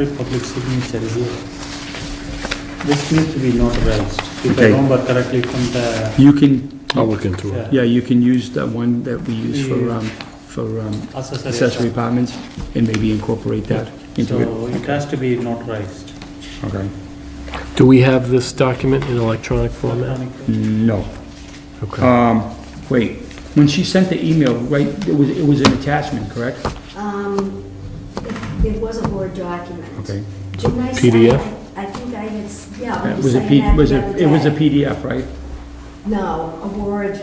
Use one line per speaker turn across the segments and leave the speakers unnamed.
Every public signature is here. This needs to be notarized, if I
Okay.
remember correctly from the,
You can,
I'll look into it.
yeah,
yeah, you can use the one that we use for, um, for um,
accessory.
accessory apartments and maybe incorporate that into it.
So it has to be notarized.
Okay.
Do we have this document in electronic format?
Electronic.
No.
Okay.
Um, wait, when she sent the email, right, it was, it was an attachment, correct?
Um, it- it was a Word document.
Okay.
Didn't I send-
PDF?
I think I had, s- yeah.
It
we
was a
signed
P,
that
was
the
it,
other
it was a
day.
PDF, right?
No, a Word,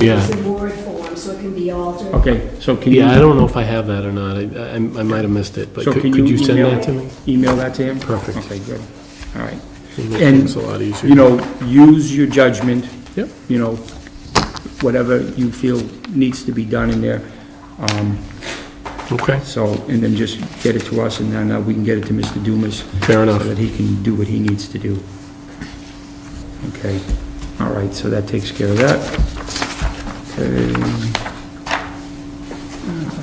Yeah.
it's in Word form, so it can be altered.
Okay, so can you?
Yeah, I don't know if I have that or not. I, I I might have missed it, but
So
could
can
could
you
you send
email
that
it?
to me?
Email that to him?
Perfect.
Okay, good. All right.
It makes
And,
things a lot easier.
You know, use your judgment.
Yep.
You know, whatever you feel needs to be done in there. Um,
Okay,
So, and then just get it to us, and then uh, we can get it to Mr. Dumas.
Fair enough.
So that he can do what he needs to do. Okay, all right, so that takes care of that. Okay. All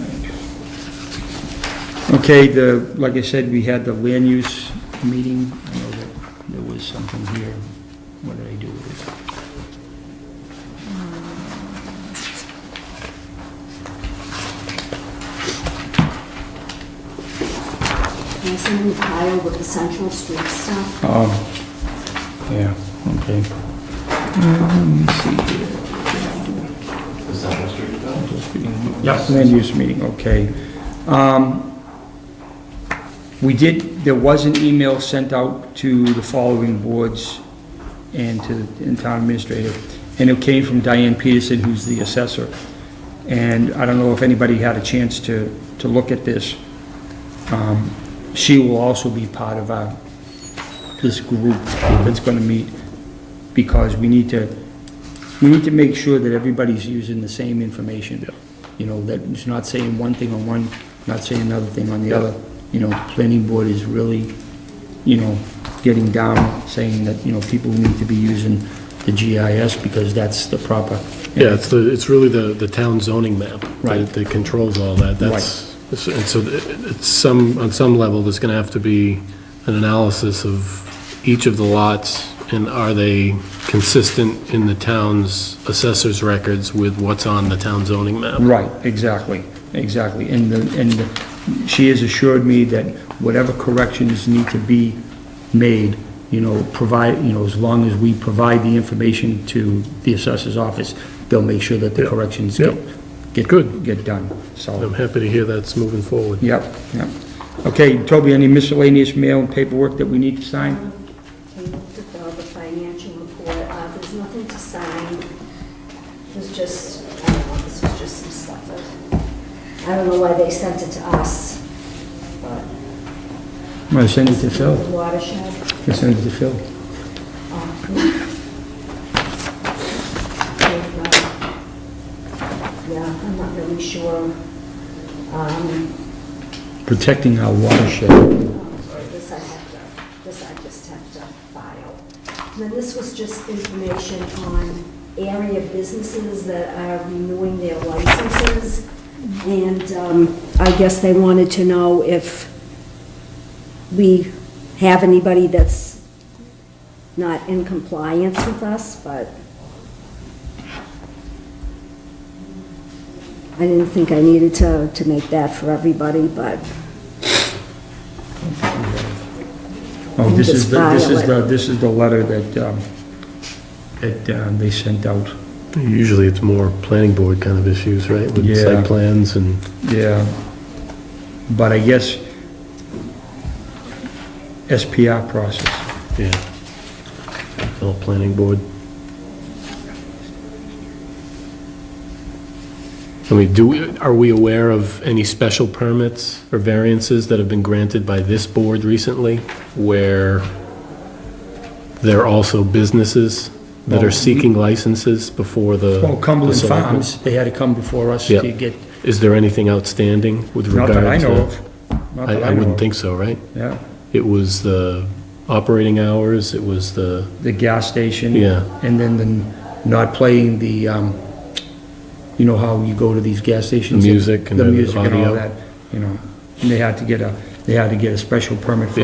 right. Okay, the, like I said, we had the land use meeting. I know that there was something here. What did I do with it?
And I sent him a pile with the Central Street stuff.
Um, yeah, okay. Um, Let me see here. Yes. Land use meeting, okay. Um, We did, there was an email sent out to the following boards and to the town administrator, and it came from Diane Peterson, who's the assessor. And I don't know if anybody had a chance to, to look at this. Um, She will also be part of our, this group that's gonna meet, because we need to, we need to make sure that everybody's using the same information. You know, that it's not saying one thing on one, not saying another thing on the other. You know, planning board is really, you know, getting down, saying that, you know, people need to be using the GIS because that's the proper.
yeah, it's the, it's really the, the town zoning map. that-
Right.
That controls all that, that's, and so it- it's some, on some level, there's gonna have to be an analysis of each of the lots, and are they consistent in the town's assessor's records with what's on the town zoning map?
Right, exactly, exactly. And the, and the- she has assured me that whatever corrections need to be made, you know, provide, you know, as long as we provide the information to the assessor's office, they'll make sure that the
Yeah,
corrections
yeah.
get, get.
Good.
Get done, so,
I'm happy to hear that's moving forward.
yep, yep. Okay, Toby, any miscellaneous mail and paperwork that we need to sign?
Um, I looked at all the financial report, uh, there's nothing to sign. There's just, I don't know, this was just some stuff that, I don't know why they sent it to us, but.
I'm gonna send it to Phil.
Watershed.
I'm gonna send it to Phil.
And, uh, Yeah, I'm not really sure. Um,
Protecting our watershed.
This I have to, this I just have to file. And Then this was just information on area businesses that are renewing their licenses. And um, I guess they wanted to know if we have anybody that's not in compliance with us, but I didn't think I needed to, to make that for everybody, but
Oh, this is, the this is
Just
the,
file it.
this is the letter that, um, that uh, they sent out.
Usually it's more planning board kind of issues, right? With
Yeah.
site plans and,
Yeah, but I guess SPR process.
yeah. All planning board. I mean, do, we- are we aware of any special permits or variances that have been granted by this board recently where there are also businesses that
Well,
are seeking licenses before the?
Well,
the
Cumberland
selectmen?
Farms, they had to come before us
Yeah.
to get,
Is there anything outstanding with
not
regard to?
that I know of. Not
I,
that
I
know
wouldn't
of.
think so, right?
Yeah,
It was the operating hours, it was the,
the gas station.
Yeah.
And then the, not playing the, um, you know how you go to these gas stations?
music and
The
the
music and all
audio.
that, you know, and they had to get a, they had to get a special permit for